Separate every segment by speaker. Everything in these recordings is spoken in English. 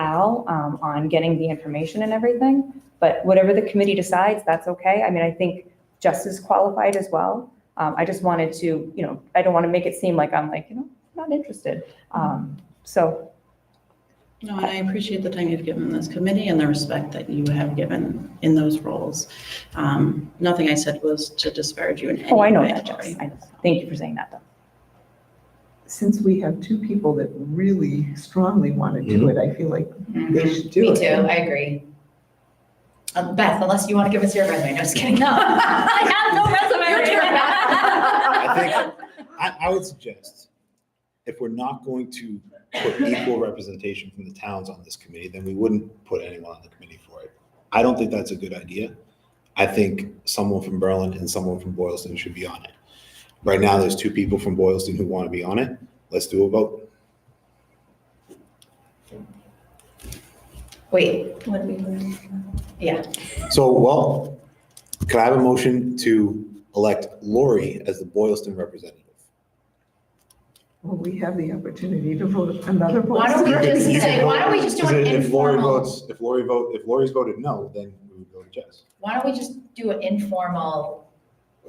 Speaker 1: now um, on getting the information and everything. But whatever the committee decides, that's okay. I mean, I think Jess is qualified as well. Um, I just wanted to, you know, I don't want to make it seem like I'm like, you know, not interested. Um, So,
Speaker 2: No, and I appreciate the time you've given this committee and the respect that you have given in those roles. Um, Nothing I said was to disparage you in any way.
Speaker 1: oh, I know that, Jess.
Speaker 2: Lori.
Speaker 1: I know. Thank you for saying that, though.
Speaker 3: Since we have two people that really strongly want to do
Speaker 4: Mm-hmm.
Speaker 3: it, I feel like they should do it.
Speaker 5: Mm-hmm. Me too, I agree. Um, Beth, unless you want to give us your resume, no, just kidding. No, I have no
Speaker 1: Your turn,
Speaker 4: I
Speaker 5: resume.
Speaker 4: I, I would suggest, if we're not going to put equal representation from the towns on this committee, then we wouldn't put anyone on the committee for it. I don't think that's a good idea. I think someone from Berlin and someone from Boylston should be on it. Right now, there's two people from Boylston who want to be on it. Let's do a vote.
Speaker 5: Wait. what did we- Yeah,
Speaker 4: So, well, could I have a motion to elect Lori as the Boylston representative?
Speaker 3: Well, we have the opportunity to vote another vote.
Speaker 5: Why don't we
Speaker 4: You can-
Speaker 5: just
Speaker 4: you can
Speaker 5: say, why don't we
Speaker 4: vote,
Speaker 5: just do
Speaker 4: because
Speaker 5: an
Speaker 4: If Lori
Speaker 5: informal-
Speaker 4: votes, if Lori vote, if Lori's voted no, then we would go to Jess.
Speaker 5: why don't we just do an informal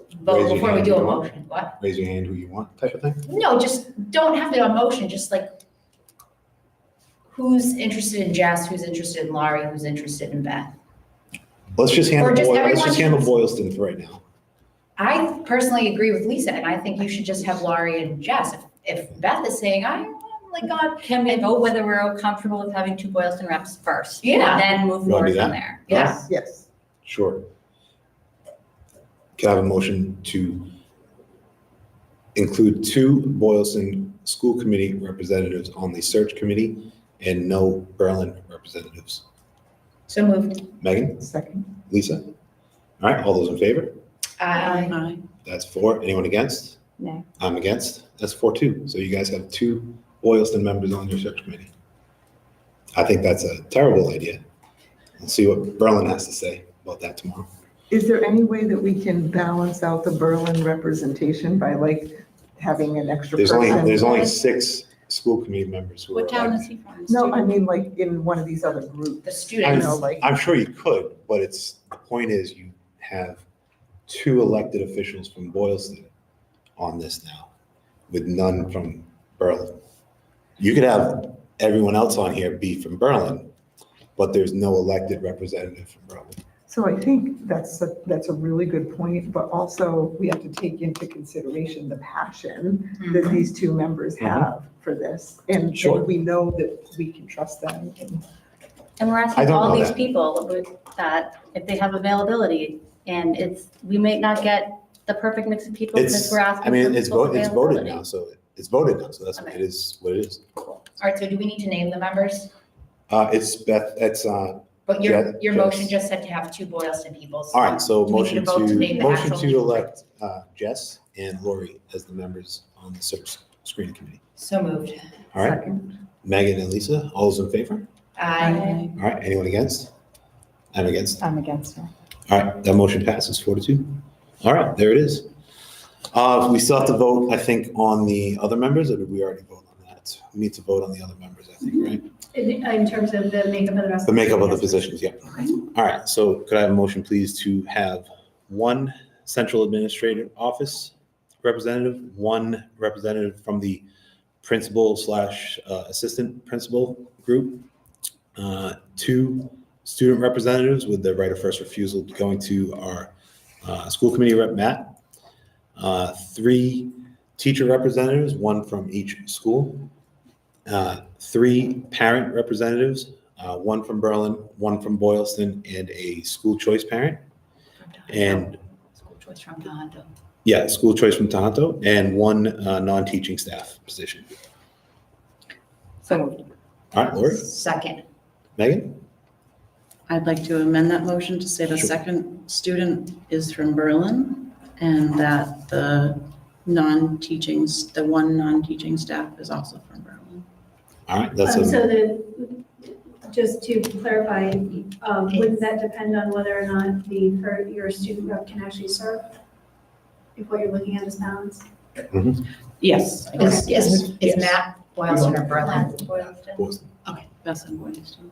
Speaker 4: Raise
Speaker 5: vote
Speaker 4: your
Speaker 5: before we
Speaker 4: hand
Speaker 5: do
Speaker 4: if
Speaker 5: a
Speaker 4: you want.
Speaker 5: motion? What?
Speaker 4: raise your hand who you want type of thing.
Speaker 5: No, just don't have to do a motion, just like who's interested in Jess, who's interested in Laurie, who's interested in Beth?
Speaker 4: Let's just handle,
Speaker 5: Or just
Speaker 4: Boy- let's
Speaker 5: everyone
Speaker 4: just handle
Speaker 5: choose.
Speaker 4: Boylston for right now.
Speaker 5: I personally agree with Lisa, and I think you should just have Laurie and Jess. If if Beth is saying, I'm like, God,
Speaker 6: Can we vote whether we're all comfortable with having two Boylston reps first?
Speaker 5: Yeah.
Speaker 6: And then move
Speaker 4: You wanna do
Speaker 6: forward
Speaker 4: that?
Speaker 6: from there.
Speaker 5: yeah,
Speaker 3: Yes,
Speaker 4: Sure. Can I have a motion to include two Boylston School Committee representatives on the search committee and no Berlin representatives?
Speaker 5: so moved.
Speaker 4: Megan,
Speaker 3: second.
Speaker 4: Lisa? All right, all those in favor?
Speaker 5: I
Speaker 2: Aye.
Speaker 4: That's four. Anyone against?
Speaker 1: No.
Speaker 4: I'm against. That's four two. So you guys have two Boylston members on your search committee. I think that's a terrible idea. We'll see what Berlin has to say about that tomorrow.
Speaker 3: Is there any way that we can balance out the Berlin representation by like having an extra
Speaker 4: There's
Speaker 3: person?
Speaker 4: only, there's only six school committee members who are
Speaker 2: What town is
Speaker 4: elected.
Speaker 2: he from?
Speaker 3: No, I mean, like in one of these other
Speaker 5: The
Speaker 3: groups, you
Speaker 5: students,
Speaker 3: know, like,
Speaker 4: I'm sure you could, but it's, the point is you have two elected officials from Boylston on this now with none from Berlin. You could have everyone else on here be from Berlin, but there's no elected representative from Berlin.
Speaker 3: so I think that's, a- that's a really good point, but also we have to take into consideration the passion that these two members have for this. And and
Speaker 4: Sure.
Speaker 3: we know that we can trust them and
Speaker 6: And we're
Speaker 4: I
Speaker 6: asking
Speaker 4: don't know
Speaker 6: all these
Speaker 4: that.
Speaker 6: people about that if they have availability. And it's, we may not get the perfect mix of people since
Speaker 4: It's,
Speaker 6: we're asking.
Speaker 4: I mean,
Speaker 6: for
Speaker 4: it's
Speaker 6: people's
Speaker 4: voted, it's voted
Speaker 6: availability.
Speaker 4: now, so it's voted now, so that's,
Speaker 6: Okay.
Speaker 4: it is what it is.
Speaker 5: all right, so do we need to name the members?
Speaker 4: Uh, it's Beth, it's, uh,
Speaker 5: But your,
Speaker 4: Yeah,
Speaker 5: your motion
Speaker 4: Jess.
Speaker 5: just said to have two Boylston people. so
Speaker 4: All right, so
Speaker 5: do we need
Speaker 4: motion
Speaker 5: vote name
Speaker 4: to,
Speaker 5: the
Speaker 4: motion
Speaker 5: actual
Speaker 4: to
Speaker 5: people?
Speaker 4: elect uh, Jess and Lori as the members on the search screening committee.
Speaker 5: So moved.
Speaker 4: All right,
Speaker 3: second.
Speaker 4: Megan and Lisa, all those in favor?
Speaker 5: I,
Speaker 2: Aye.
Speaker 4: All right, anyone against? I'm against.
Speaker 1: I'm against it.
Speaker 4: All right, that motion passes four to two. All right, there it is. Uh, We still have to vote, I think, on the other members, or did we already vote on that? We need to vote on the other members, I think, right?
Speaker 7: In, in terms of the makeup of the rest.
Speaker 4: The makeup of the
Speaker 7: committee,
Speaker 4: positions,
Speaker 7: yes.
Speaker 4: yeah. All right, so could I have a motion, please, to have one central administrative office representative, one representative from the principal slash uh, assistant principal group, uh, two student representatives with the right of first refusal going to our uh, school committee rep, Matt, uh, three teacher representatives, one from each school, uh, three parent representatives, uh, one from Berlin, one from Boylston, and a school choice parent. And
Speaker 2: School choice from Tohoto.
Speaker 4: yeah, school choice from Tohoto, and one uh, non-teaching staff position.
Speaker 1: So moved.
Speaker 4: All right, Lori,
Speaker 5: second,
Speaker 4: Megan,
Speaker 2: I'd like to amend that motion to say the
Speaker 4: Sure.
Speaker 2: second student is from Berlin and that the non-teaching, s- the one non-teaching staff is also from Berlin.
Speaker 4: all right, that's
Speaker 7: Um,
Speaker 4: a,
Speaker 7: So the, just to clarify, um, wouldn't that depend on whether or not the, her, your student rep can actually serve? If what you're looking at is balance?
Speaker 2: Yes. I guess.
Speaker 5: is, is, is
Speaker 2: Yes.
Speaker 5: Matt Boylston or Berlin?
Speaker 4: Boylston.
Speaker 2: Okay, Beth and Boylston.